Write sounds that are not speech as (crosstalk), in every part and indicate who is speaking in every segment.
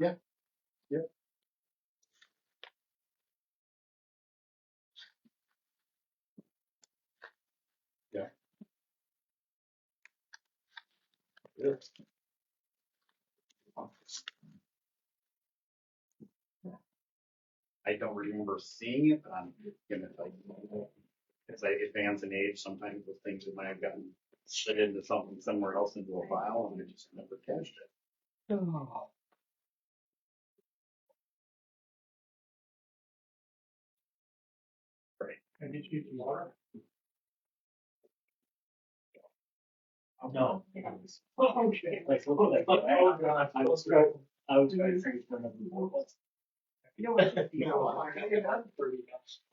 Speaker 1: Yeah, yeah. Yeah. yeah. I don't remember seeing it, but I'm gonna like, as I advance in age, sometimes those things that might have gotten slid into something somewhere else into a file and I just never catched it. Oh. Right.
Speaker 2: Can I get you some water?
Speaker 3: No.
Speaker 2: Oh, okay.
Speaker 3: Like, look at that.
Speaker 2: Oh, God.
Speaker 3: I was trying, I was trying to drink for another one.
Speaker 2: You know what? No, I got it done for you.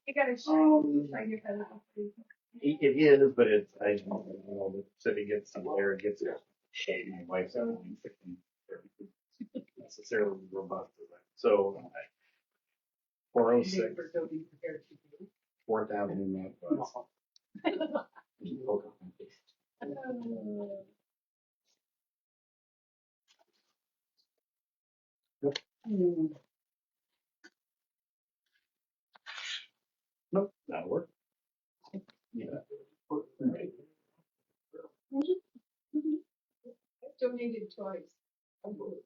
Speaker 4: You gotta
Speaker 1: Um,
Speaker 4: shine your head up.
Speaker 1: It it is, but it's, I don't know, the city gets some air, it gets shade, my wife's at one fifteen. Necessarily robust, as that. so. Four oh six, fourth avenue northwest. Nope, that'll work. Yeah. Right.
Speaker 4: Donated (laughs) toys.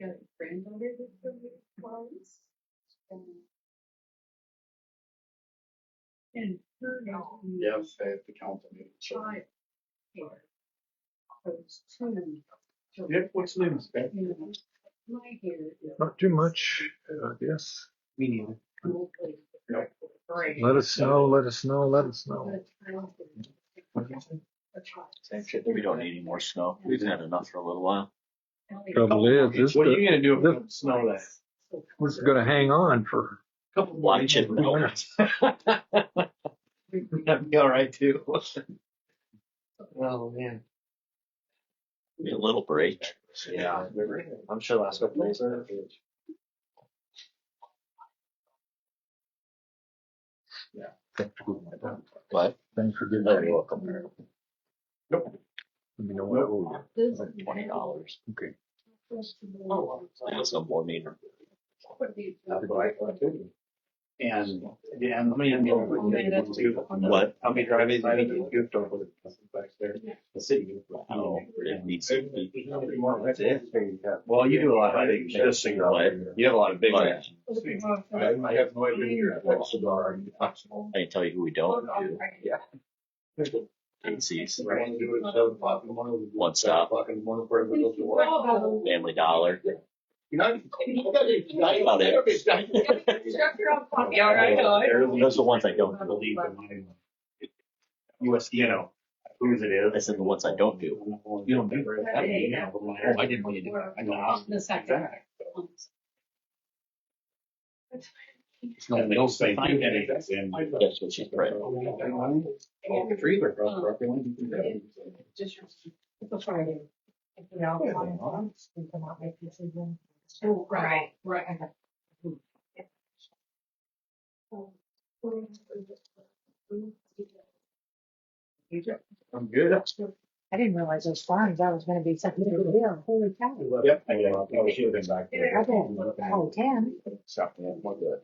Speaker 4: Got a granddaughter that's donated toys. And- And her now.
Speaker 1: Yes, I have to count them.
Speaker 4: Child. care. Those two.
Speaker 2: Yep, what's the name?
Speaker 4: You know, My hair is.
Speaker 5: Not too much, I guess.
Speaker 4: completely
Speaker 1: Nope.
Speaker 4: gray.
Speaker 5: Let us know, let us know, let us know.
Speaker 4: The child is- the child.
Speaker 3: Same shit, we don't need any more snow. We've had enough for a little while.
Speaker 5: Trouble is, this,
Speaker 2: What are you
Speaker 5: this
Speaker 2: gonna do if
Speaker 5: the-
Speaker 2: it don't snow that?
Speaker 1: (laughs)
Speaker 5: is gonna hang on for,
Speaker 2: Couple
Speaker 3: Watch it.
Speaker 2: That'd be all right
Speaker 1: (laughs)
Speaker 2: too. Oh, man.
Speaker 3: Need a little break.
Speaker 1: Yeah.
Speaker 3: I'm sure last couple days are. What?
Speaker 5: thanks for
Speaker 1: Oh,
Speaker 5: giving
Speaker 3: You're
Speaker 5: me,
Speaker 3: welcome.
Speaker 5: let me know what.
Speaker 4: This
Speaker 3: Like Twenty dollars.
Speaker 5: Okay.
Speaker 4: Festival.
Speaker 3: That's no more meter.
Speaker 4: Would be-
Speaker 1: That's what I thought too. And, yeah, and.
Speaker 3: What?
Speaker 1: I'll be driving by the gift store with the customers back there. The city.
Speaker 3: Oh, it needs to be.
Speaker 1: That's it. Well, you do a lot of things.
Speaker 3: Just so you're aware.
Speaker 1: You have a lot of big
Speaker 3: But
Speaker 4: Would be more
Speaker 1: I
Speaker 4: fun.
Speaker 1: I have no idea you're at that cigar.
Speaker 3: I can tell you who we don't do. Casey's,
Speaker 1: I want to do it at seven o'clock in the morning.
Speaker 3: One stop.
Speaker 1: Seven O'clock in the morning for everyone to work.
Speaker 4: Oh,
Speaker 3: Family Dollar.
Speaker 1: You know, you gotta- you gotta-
Speaker 3: About it.
Speaker 4: Shut your own coffee, all right, all right.
Speaker 3: Those are the ones I don't do.
Speaker 1: believe in mine. US, you know, whose it is.
Speaker 3: I said the ones I don't do.
Speaker 1: You don't do it. I mean, you know, but my- I didn't really do that. I know.
Speaker 4: On the second.
Speaker 1: Exactly.
Speaker 3: It's
Speaker 1: And they'll say, "You
Speaker 3: Find it.
Speaker 1: did it." And-
Speaker 3: That's what she's right.
Speaker 1: Off the tree, they're from Brooklyn.
Speaker 4: Just your- It's a Friday. If you're out
Speaker 1: Yeah.
Speaker 4: on lunch, you come out, make your decision. Oh, Right, right. I got-
Speaker 1: I'm good.
Speaker 6: I didn't realize those farms, I was gonna be such a big deal, holy cow.
Speaker 1: Yep. I mean, I should have been back there.
Speaker 6: I bet, oh, ten,
Speaker 1: So, yeah, we're good.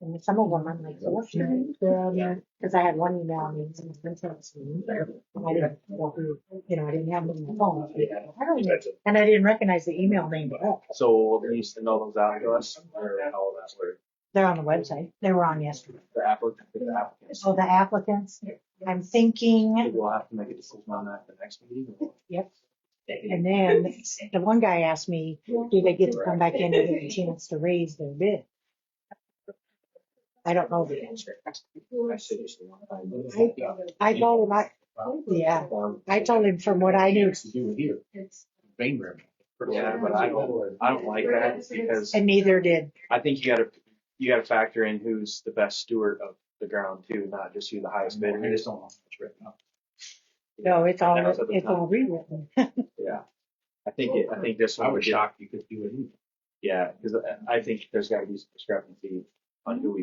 Speaker 6: and some of them, I'm like, what's your name?
Speaker 1: Yeah.
Speaker 6: Cause I had one email, I mean, some of them said, "It's me." And I didn't know who- you know, I didn't have them on the phone.
Speaker 1: Yeah.
Speaker 6: I don't know. And I didn't recognize the email name, but
Speaker 3: So they used to know those out to us or how that worked.
Speaker 6: they're on the website, they were on yesterday.
Speaker 3: The applicant, the applicants.
Speaker 6: So the applicants, I'm thinking,
Speaker 3: We'll have to make a decision on that the next meeting.
Speaker 6: yep. And then the one guy asked me, do they get to come back in and get a chance to raise their bid? I don't know the answer.
Speaker 3: I should just want to find those.
Speaker 6: I- I told him, I, Yeah. I told him from what I knew,
Speaker 1: To do it here,
Speaker 4: It's-
Speaker 1: Bainbridge.
Speaker 3: Yeah, but I don't- I don't like that because
Speaker 6: and neither did,
Speaker 3: I think you gotta, you gotta factor in who's the best steward of the ground too, not just who the highest bidder
Speaker 1: I
Speaker 3: is.
Speaker 1: just don't know if it's written up.
Speaker 6: no, it's all,
Speaker 3: That was at the
Speaker 6: it's all rewritten.
Speaker 3: Yeah. I think, it- I think this
Speaker 1: I
Speaker 3: one would
Speaker 1: was
Speaker 3: get,
Speaker 1: shocked you could do it.
Speaker 3: yeah, because I think there's gotta be some discrepancy on who we